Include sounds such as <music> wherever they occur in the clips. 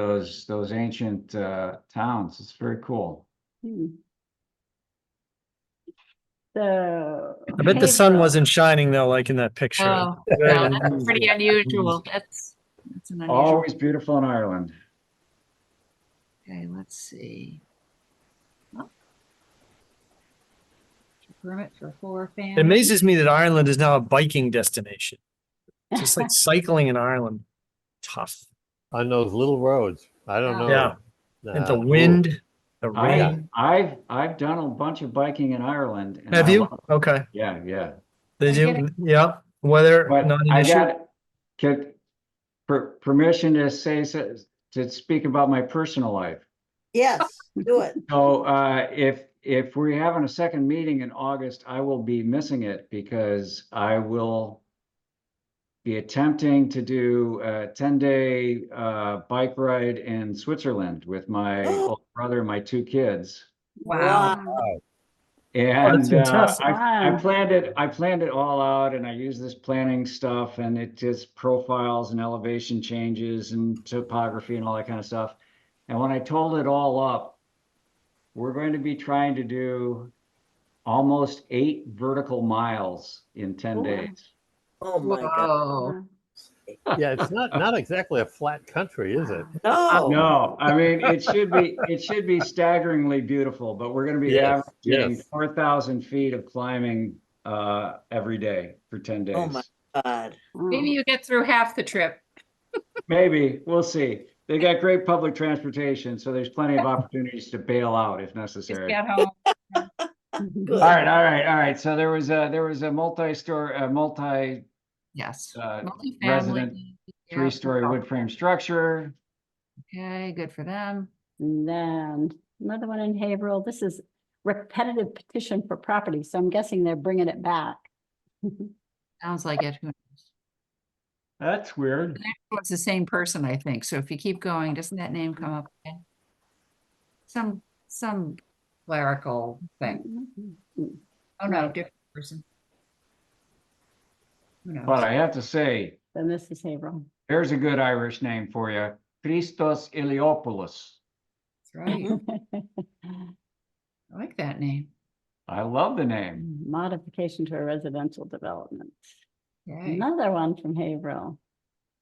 those, those ancient, uh, towns. It's very cool. Hmm. The. I <laughs> bet the sun Haverhill- wasn't shining though, like in that picture. Oh, no, that's pretty unusual. That's, that's an unusual. Always beautiful in Ireland. Okay, let's see. Oh. Permit for four It families. amazes me that Ireland is now a biking destination. Just <laughs> like cycling in Ireland, tough. on those little roads. I don't know. Yeah. And Uh, the cool. wind, the I, rain. I've, I've done a bunch of biking in Ireland. and Have I you? love it. Okay. Yeah, yeah. They I get do. Yeah. Weather, But not an I issue. got, get per- permission to say, so- to speak about my personal life. Yes, do it. <laughs> So uh, if, if we're having a second meeting in August, I will be missing it because I will be attempting to do a ten-day uh, bike ride in Switzerland with my Oh. older brother and my two kids. Wow. And uh, fantastic. I, I Wow. planned it, I planned it all out and I used this planning stuff and it just profiles and elevation changes and topography and all that kind of stuff. And when I told it all up, we're going to be trying to do almost eight vertical miles in ten Wow. days. Oh, my God. Whoa. Yeah, it's not not exactly a flat country, is it? No. No, I mean, it should be, it should be staggeringly beautiful, but we're gonna be Yes, averaging yes. four thousand feet of climbing uh, every day for ten days. my God. <laughs> Maybe you get through half the trip. Maybe, we'll see. They got great public transportation, so there's plenty of opportunities to bail out if Just necessary. get home. All Good. right, all right, all right. So there was a, there was a multi-store, a multi, Yes. <laughs> uh, Multifamily. resident, Yeah. three-story wood frame structure. Okay, good for them. And then another one in Haverhill. This is repetitive petition for property, so I'm guessing they're bringing it back. Sounds like it. Who knows? That's weird. It's the same person, I think. So if you keep going, doesn't that name come up again? Some, some clerical thing. Oh, no, different person. Who knows? But I have to say, Then this is Haverhill. <laughs> there's a good Irish name for you. Christos Iliopoulos. That's Mm-hmm. Right. I like that name. I love the name. Modification to a residential development. Yay. Another one from Haverhill.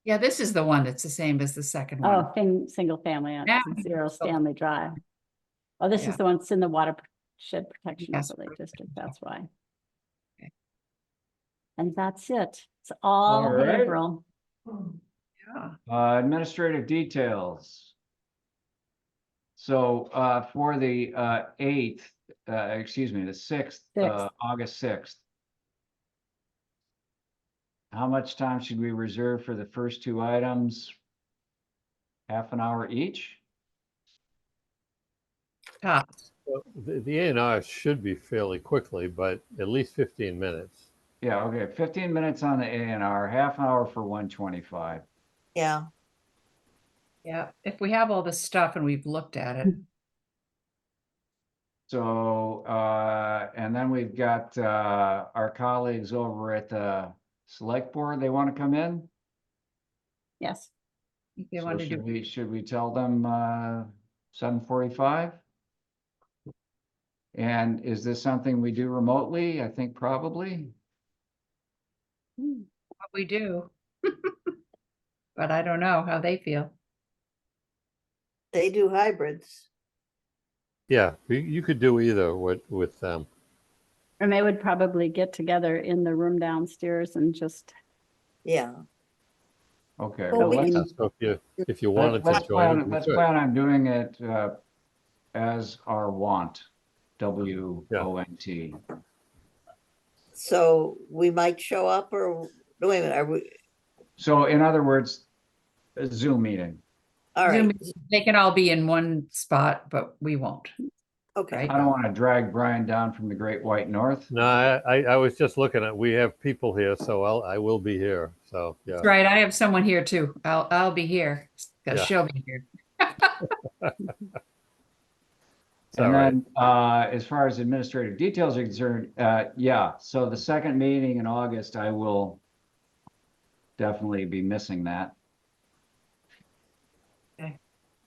Yeah, this is the one that's the same as the second one. Oh, thing, single family on Yeah. Zero Stanley Drive. Oh, this Yeah. is the one that's in the watershed protection Yes. overlay district, that's why. Okay. And that's it. It's all All right. Haverhill. Yeah. Uh, administrative details. So, uh, for the, uh, eighth, uh, excuse me, the sixth, uh, Sixth. August sixth. How much time should we reserve for the first two items? Half an hour each? Top. Well, The, the A&R should be fairly quickly, but at least 15 minutes. Yeah, okay, fifteen minutes on the A and R, half an hour for one twenty-five. Yeah, Yeah, if we have all this stuff and we've looked at it, So, uh, and then we've got, uh, our colleagues over at the select board, they want to come in? Yes, I think they So want to should do, we- Should we tell them, uh, seven forty-five? And is this something we do remotely? I think probably. Hmm, what we do. <laughs> But I don't know how they feel. they do hybrids. Yeah, you, you could do either with with um, them. and they would probably get together in the room downstairs and just, Yeah. Okay. well, Well, we let's- can- So if you if you let- wanted Let's to join, plan, you let's could. plan on doing it, uh, as our want, W O N T. So we might show up or, no, wait a minute, are we, So in other words, a Zoom meeting. all Zoom right, meeting. They can all be in one spot, but we won't. okay. right? I don't want to drag Brian down from the great white north. No, I, I I was just looking at we have people here, so I'll I will be here. So yeah, That's right, I have someone here too. I'll, I'll be here. 'cause Yeah. She'll be here. it's all And right. then, uh, as far as administrative details are concerned, uh, yeah, so the second meeting in August, I will definitely be missing that.